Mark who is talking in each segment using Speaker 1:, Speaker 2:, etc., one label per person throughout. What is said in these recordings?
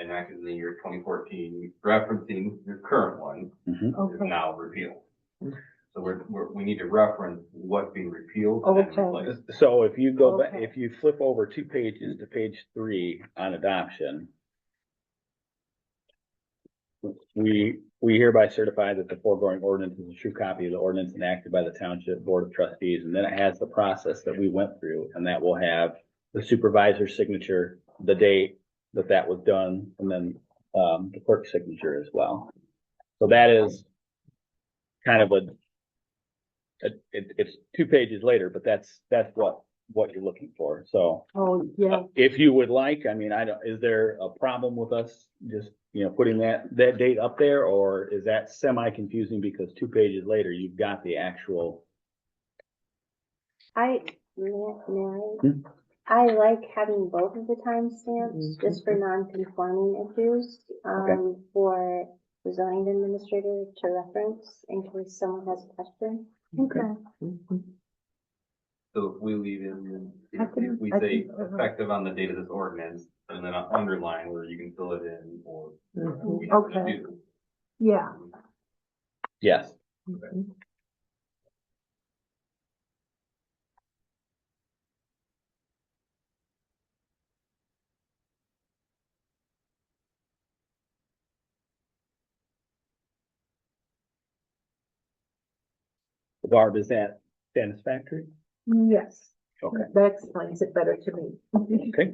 Speaker 1: enacted in the year twenty fourteen, referencing the current one is
Speaker 2: Okay, Mm.
Speaker 1: now repealed. So we're, we're, we need to reference what's being repealed and
Speaker 2: Okay.
Speaker 1: replaced.
Speaker 3: So if you go, ba-
Speaker 2: Okay.
Speaker 3: if you flip over two pages to page three on adoption. We, we hereby certify that the foregoing ordinance is a true copy of the ordinance enacted by the Township Board of Trustees, and then it has the process that we went through, and that will have the supervisor's signature, the date that that was done, and then, um, the clerk's signature as well. So that is kind of a it, it, it's two pages later, but that's, that's what, what you're looking for, so.
Speaker 2: oh, yeah,
Speaker 3: uh, If you would like, I mean, I don't, is there a problem with us just, you know, putting that, that date up there? Or is that semi confusing because two pages later, you've got the actual,
Speaker 4: I, may-
Speaker 3: Hmm?
Speaker 4: may I I like having both of the timestamps, just for non-conforming issues, um, for the zoning administrator to reference in case someone has a question.
Speaker 2: okay.
Speaker 3: Mm-hmm.
Speaker 1: So if we leave in,
Speaker 2: I
Speaker 1: if
Speaker 2: can-
Speaker 1: if we
Speaker 2: I uh-huh.
Speaker 1: say
Speaker 2: can-
Speaker 1: effective on the date of this ordinance, and then I'll underline where you can fill it in or. whatever
Speaker 2: Mhm.
Speaker 1: we have to
Speaker 2: Okay.
Speaker 1: do.
Speaker 2: Yeah.
Speaker 3: yes,
Speaker 2: mhm.
Speaker 3: Barb, is that satisfactory?
Speaker 2: Yes,
Speaker 3: Okay,
Speaker 2: that explains it better to me.
Speaker 3: Okay.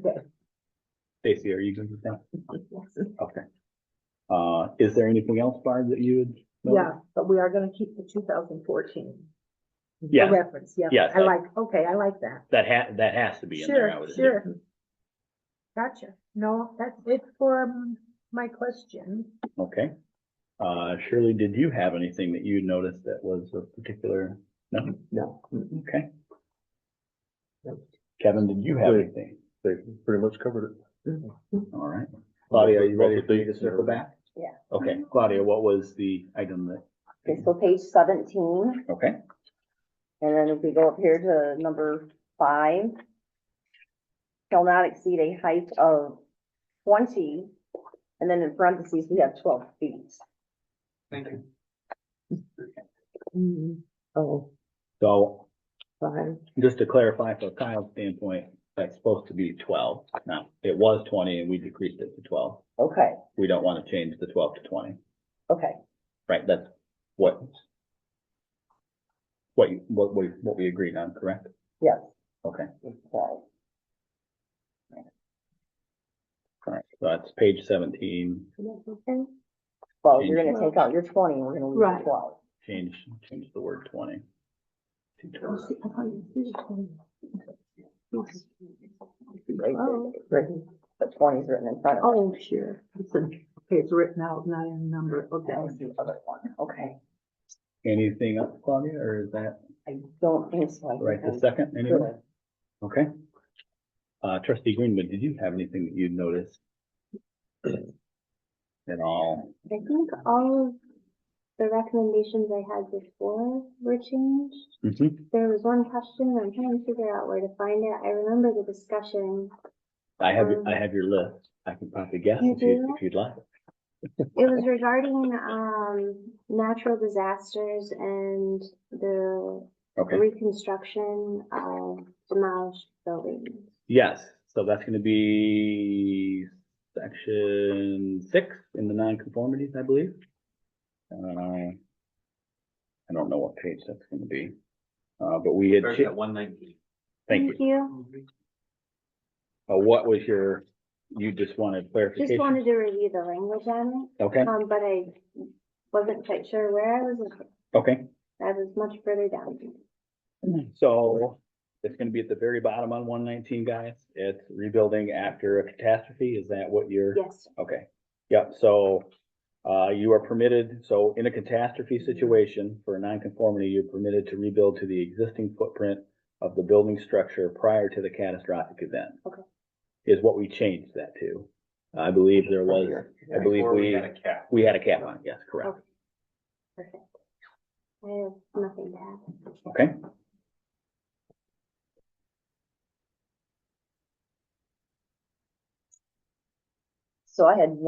Speaker 3: Stacy, are you good with that? Okay. Uh, is there anything else, Barb, that you would?
Speaker 2: Yeah, but we are gonna keep the two thousand fourteen.
Speaker 3: Yes.
Speaker 2: Reference, yeah.
Speaker 3: Yes,
Speaker 2: I
Speaker 3: I-
Speaker 2: like, okay, I like that.
Speaker 3: That ha, that has to be in there, I
Speaker 2: Sure,
Speaker 3: would assume.
Speaker 2: sure. Gotcha. No, that's it for um, my question.
Speaker 3: Okay. Uh, Shirley, did you have anything that you noticed that was of particular? No?
Speaker 5: No.
Speaker 3: Okay. Kevin, did you have
Speaker 5: Good.
Speaker 3: anything? Mm-hmm.
Speaker 5: They pretty much covered it.
Speaker 3: All right. Claudia, are you ready
Speaker 5: Both
Speaker 3: for
Speaker 5: the
Speaker 3: me to
Speaker 5: dates
Speaker 3: circle
Speaker 5: are-
Speaker 3: back?
Speaker 4: Yeah.
Speaker 3: Okay, Claudia, what was the item
Speaker 4: Okay,
Speaker 3: that?
Speaker 4: so page seventeen,
Speaker 3: Okay,
Speaker 4: and then if we go up here to number five. Shall not exceed a height of twenty, and then in parentheses, we have twelve feet.
Speaker 1: Thank you.
Speaker 4: Mm-hmm.
Speaker 2: Oh,
Speaker 3: so
Speaker 2: fine.
Speaker 3: just to clarify from Kyle's standpoint, that's supposed to be twelve. Now, it was twenty and we decreased it to twelve.
Speaker 4: Okay,
Speaker 3: We don't want to change the twelve to twenty.
Speaker 4: okay.
Speaker 3: Right, that's what what you, what we, what we agreed on, correct?
Speaker 4: Yes.
Speaker 3: Okay,
Speaker 4: Okay.
Speaker 3: all right, so that's page seventeen,
Speaker 4: Well, you're gonna take out your twenty, we're gonna leave
Speaker 2: Right.
Speaker 4: the twelve.
Speaker 3: change, change the word twenty.
Speaker 4: Right there.
Speaker 2: Oh.
Speaker 4: Written, the twenty's written in front of it.
Speaker 2: Oh, sure. It's a- Okay, it's written out, not in number, okay.
Speaker 4: That was the other one, okay.
Speaker 3: Anything else, Claudia, or is that
Speaker 4: I don't think so. I think
Speaker 3: right
Speaker 4: I'm
Speaker 3: this second, anyway?
Speaker 4: good.
Speaker 3: Okay. Uh, trustee Greenwood, did you have anything that you'd noticed? At all?
Speaker 4: I think all of the recommendations I had before were changed.
Speaker 3: Mhm.
Speaker 4: There was one question, I'm trying to figure out where to find it. I remember the discussion.
Speaker 3: I have, your- I have your list, I can probably guess
Speaker 4: Um, You
Speaker 3: if you,
Speaker 4: do?
Speaker 3: if you'd like.
Speaker 4: It was regarding, um, natural disasters and the
Speaker 3: Okay.
Speaker 4: reconstruction of demolished buildings.
Speaker 3: Yes, so that's gonna be section six in the nonconformities, I believe. Uh, I don't know what page that's gonna be, uh, but we had,
Speaker 1: Starts
Speaker 3: cha-
Speaker 1: at one nineteen.
Speaker 3: thank you. Uh, what was your, you just wanted
Speaker 4: Just
Speaker 3: clarification?
Speaker 4: wanted to review the language on
Speaker 3: Okay,
Speaker 4: it, um, but I wasn't quite sure where I was. with it.
Speaker 3: okay,
Speaker 4: I was much further down.
Speaker 3: so it's gonna be at the very bottom on one nineteen, guys. It's rebuilding after a catastrophe, is that what you're?
Speaker 4: Yes,
Speaker 3: Okay, yeah, so, uh, you are permitted, so in a catastrophe situation for a nonconformity, you're permitted to rebuild to the existing footprint of the building structure prior to the catastrophic event.
Speaker 4: Okay.
Speaker 3: Is what we changed that to. I believe there was, I believe
Speaker 1: Before
Speaker 3: we,
Speaker 1: had a cap.
Speaker 3: we had a cap on, it, yes, correct,
Speaker 4: Okay. perfect. I have nothing to add.
Speaker 3: okay?
Speaker 4: So I had